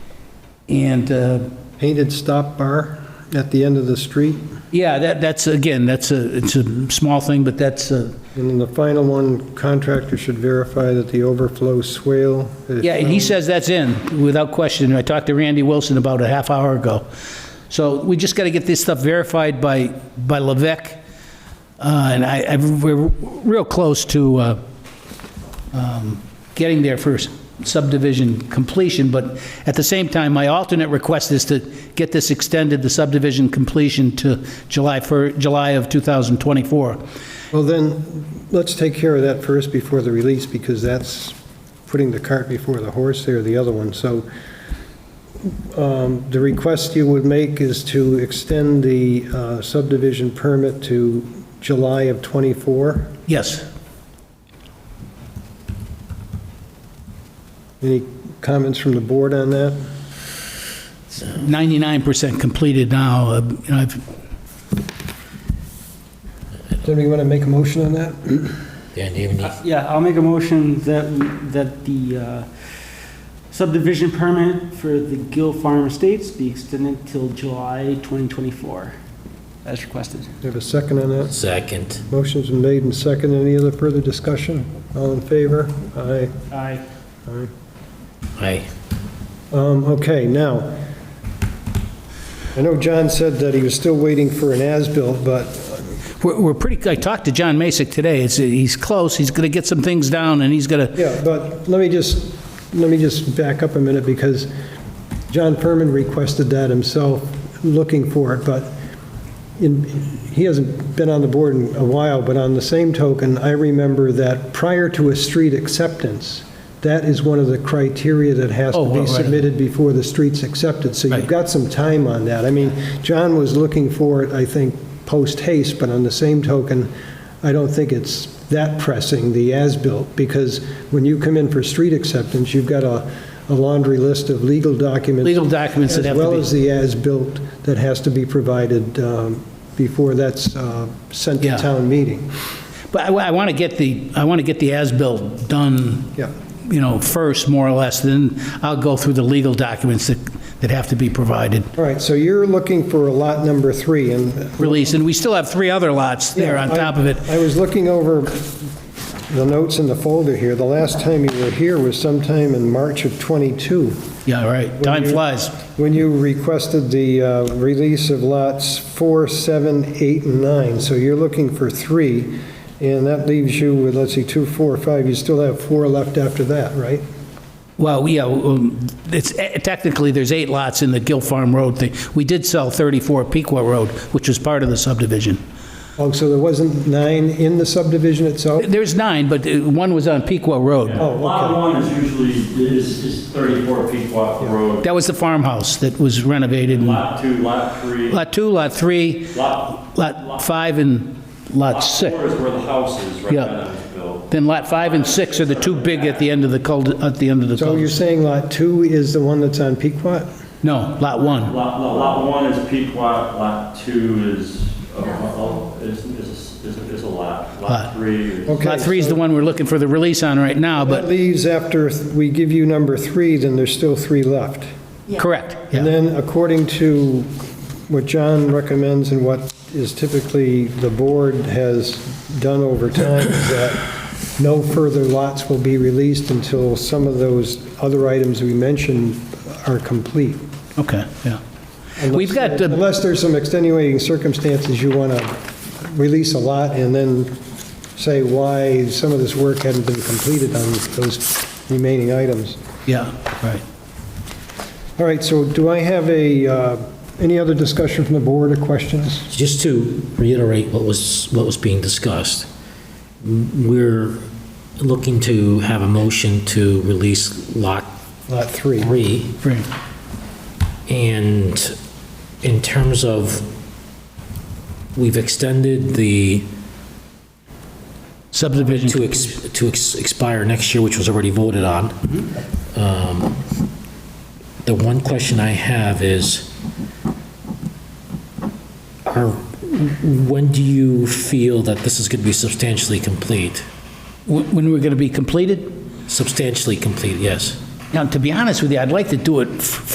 And, uh, Painted stop bar at the end of the street. yeah, that, that's, again, that's a, it's a small thing, but that's uh, a, And then the final one, contractor should verify that the overflow swale. is Yeah, and he says that's in, without question. I talked to Randy Wilson about a half hour ago. So we just got to get this stuff verified by, by Levesque, Uh, and I, I- we're real close to uh, um, getting there for subdivision completion, but at the same time, my alternate request is to get this extended, the subdivision completion to July, for July of 2024. Well, then, let's take care of that first before the release, because that's putting the cart before the horse there, the other one. So um, the request you would make is to extend the uh, subdivision permit to July of '24. Yes. Any comments from the board on that? 99% completed now. Uh, you know, I've Does anybody want to make a motion on that? Dan, do you have any? Yeah, I'll make a motion that, that the uh, subdivision permit for the Gill Farm Estates be extended till July 2024, as requested. Do you have a second on that? Second. Motion's been made and second. Any other further discussion? All in favor? Aye. Aye. Aye. Aye. Um, Okay, now, I know John said that he was still waiting for an as-built, but We're, we're pretty, I talked to John Masick today, it's, he's close, he's gonna get some things down, and he's gonna, Yeah, but let me just, let me just back up a minute, because John Furman requested that himself, looking for it, but in, he hasn't been on the board in a while, but on the same token, I remember that prior to a street acceptance, that is one of the criteria that has Oh, to be right. submitted before the street's accepted, so Right. you've got some time on that. I mean, John was looking for it, I think, post haste, but on the same token, I don't think it's that pressing, the as-built, because when you come in for street acceptance, you've got a a laundry list of legal documents. Legal documents that have to As be- well as the as-built that has to be provided um, before that's uh, sent Yeah. to town meeting. but I, wa- I wanna get the, I wanna get the as-built done, Yeah. you know, first, more or less, then I'll go through the legal documents that, that have to be provided, All right, so you're looking for a lot number three, and... released, and we still have three other lots there on Yeah, I- top of it. I was looking over the notes in the folder here. The last time you were here was sometime in March of '22. Yeah, right, time you- flies. when you requested the uh, release of lots 4, 7, 8, and 9. So you're looking for three, and that leaves you with, let's see, 2, 4, 5. You still have four left after that, right? Well, yeah, um, it's, eh, technically, there's eight lots in the Gill Farm Road thing. We did sell 34 Pequot Road, which was part of the subdivision. Oh, so there wasn't nine in the subdivision itself? There's nine, but uh, one was on Pequot Road. Oh, okay. Lot one is usually, is, is 34 Pequot Road. That was the farmhouse that was renovated. Lot two, lot three, lot, Lot 2, Lot 3, lot Lot 5, and Lot 6. four is where the house is, right Yeah. now that was built. Then Lot 5 and 6 are the two big at the end of the cul, at the end of the So cul. you're saying lot 2 is the one that's on Pequot? No, Lot 1. Lot, lot- lot one is Pequot, lot two is, uh, uh, is, is, is is a lot. Lot. Lot three, is- Okay, Lot 3 is the so one we're looking for the release on right now, That but, leaves after we give you number 3, then there's still three left. correct, And yeah. then according to what John recommends and what is typically the board has done over time, is that no further lots will be released until some of those other items we mentioned are complete. Okay, yeah. Unless- We've got the- Unless there's some extenuating circumstances, you want to release a lot and then say why some of this work hadn't been completed on those remaining items. Yeah, right. All right, so do I have a, uh, any other discussion from the board or questions? Just to reiterate what was, what was being discussed, we're looking to have a motion to release Lot Lot three. 3, Great. and in terms of, we've extended the, Subdivision. to ex- to ex- expire next year, which was already voted on. Um, The one question I have is, are, when do you feel that this is going to be substantially complete? Wh- When we're going to be completed? Substantially complete, yes. Now, to be honest with you, I'd like to do it f-